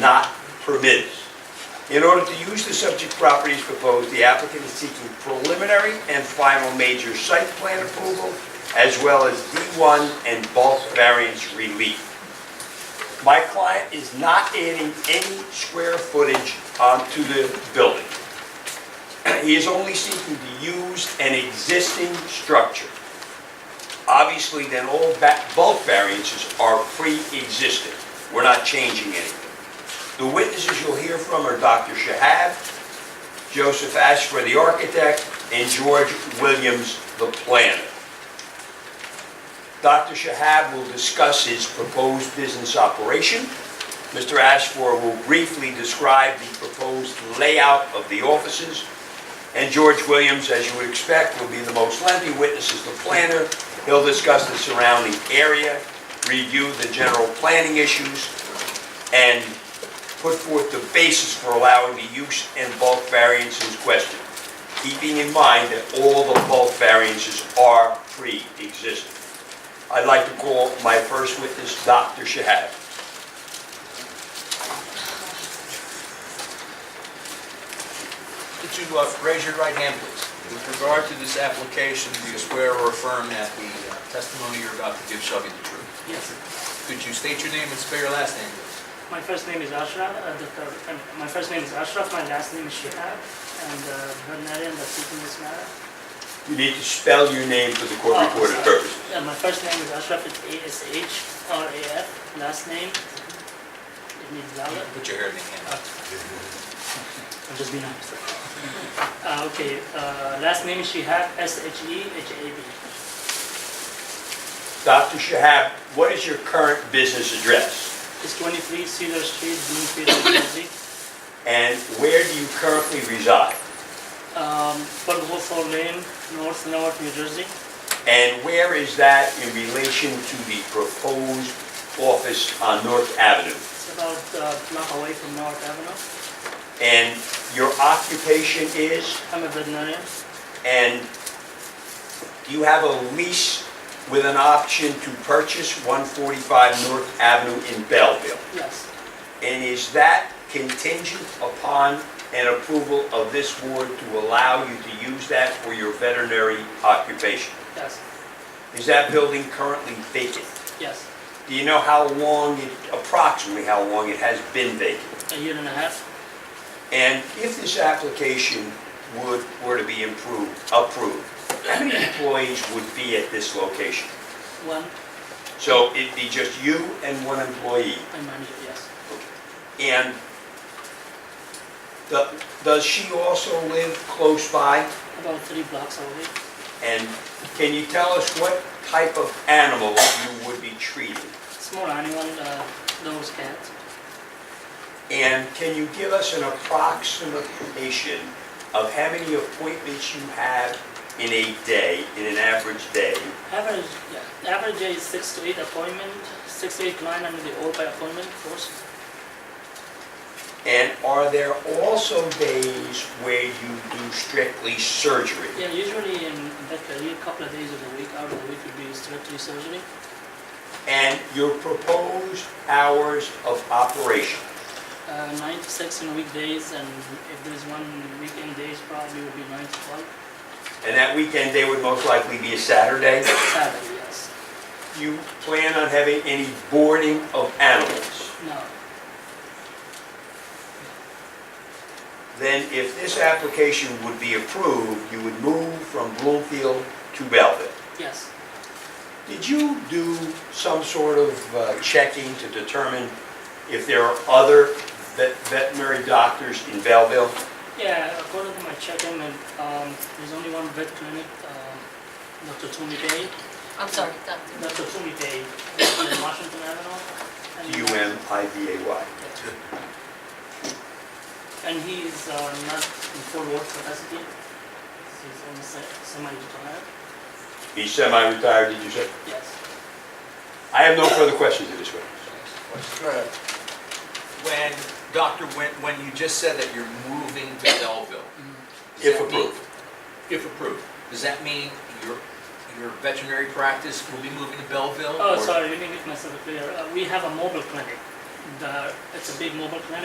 not permitted. In order to use the subject property as proposed, the applicant is seeking preliminary and final major site plan approval, as well as D1 and bulk variance relief. My client is not adding any square footage onto the building. He is only seeking to use an existing structure. Obviously, then all ba- bulk variances are pre-existing. We're not changing anything. The witnesses you'll hear from are Dr. Shahab, Joseph Ashford, the architect, and George Williams, the planner. Dr. Shahab will discuss his proposed business operation. Mr. Ashford will briefly describe the proposed layout of the offices. And George Williams, as you would expect, will be the most lengthy witness as the planner. He'll discuss the surrounding area, review the general planning issues, and put forth the basis for allowing the use and bulk variances question, keeping in mind that all the bulk variances are pre-existing. I'd like to call my first witness, Dr. Shahab. Could you uh, raise your right hand, please? With regard to this application, do you swear or affirm that the uh, testimony you're about to give shall be the truth? Yes, sir. Could you state your name and spell your last name, please? My first name is Ashraf, uh, the, uh, my first name is Ashraf, my last name is Shihab, and uh, Bernarian, the seeking this matter. You need to spell your name for the court Oh, recorder sorry. purpose. Uh, my first name is Ashraf, it's A-S-H-R-A-F, last name, it needs dollar, Put your hand in hand. I'm just being honest. Uh, okay, uh, last name is Shihab, E S-H-E-H-A-B. Dr. Shahab, what is your current business address? It's 23 Cedar Street, Bloomfield, New Jersey. And where do you currently reside? Um, 1204 Lane, North Newark, New Jersey. And where is that in relation to the proposed office on North Avenue? It's about uh, a block away from Newark Avenue. And your occupation is, I'm a veterinarian. and do you have a lease with an option to purchase 145 North Avenue in Belleville? Yes, And is that contingent upon an approval of this board to allow you to use that for your veterinary occupation? yes, Is that building currently vacant? yes. Do you know how long, it approximately how long it has been vacant? A year and a half. And if this application would, were to be improved, approved, how many employees would be at this location? One, So it'd be just you and one employee? my manager, yes. And do- does she also live close by? About three blocks away. And can you tell us what type of animal you would be treating? Small animal, uh, those cats. And can you give us an approximation of how many appointments you have in a day, in an average day? Average, yeah, average day is six to eight appointment, six to eight client, and they all by appointment, of course. And are there also days where you do strictly surgery? Yeah, usually in that career, couple of days of the week, out of the week would be strictly surgery. And your proposed hours of operation? Uh, nine to six on weekdays, and if there's one weekend days, probably would be nine to twelve. And that weekend day would most likely be a Saturday? Saturday, yes. You plan on having any boarding of animals? No, Then if this application would be approved, you would move from Bloomfield to Belleville. yes, Did you do some sort of uh, checking to determine if there are other vet- veterinary doctors in Belleville? Yeah, according to my check-in, and, um, there's only one vet clinic, um, Dr. Toomey Day, I'm sorry, Doctor. Dr. Toomey Day, in Washington Avenue. and- D-U-M-I-V-A-Y. And he is, uh, not in full work capacity, he's only se- semi-retired, He's semi-retired, did you say? yes. I have no further questions at this witness. When, Doctor, when, when you just said that you're moving to Belleville? does If that mean- approved. If approved, does that mean your, your veterinary practice will be moving to Belleville? Oh, or- sorry, let me make myself clear, uh, we have a mobile clinic, the, it's a big mobile clinic.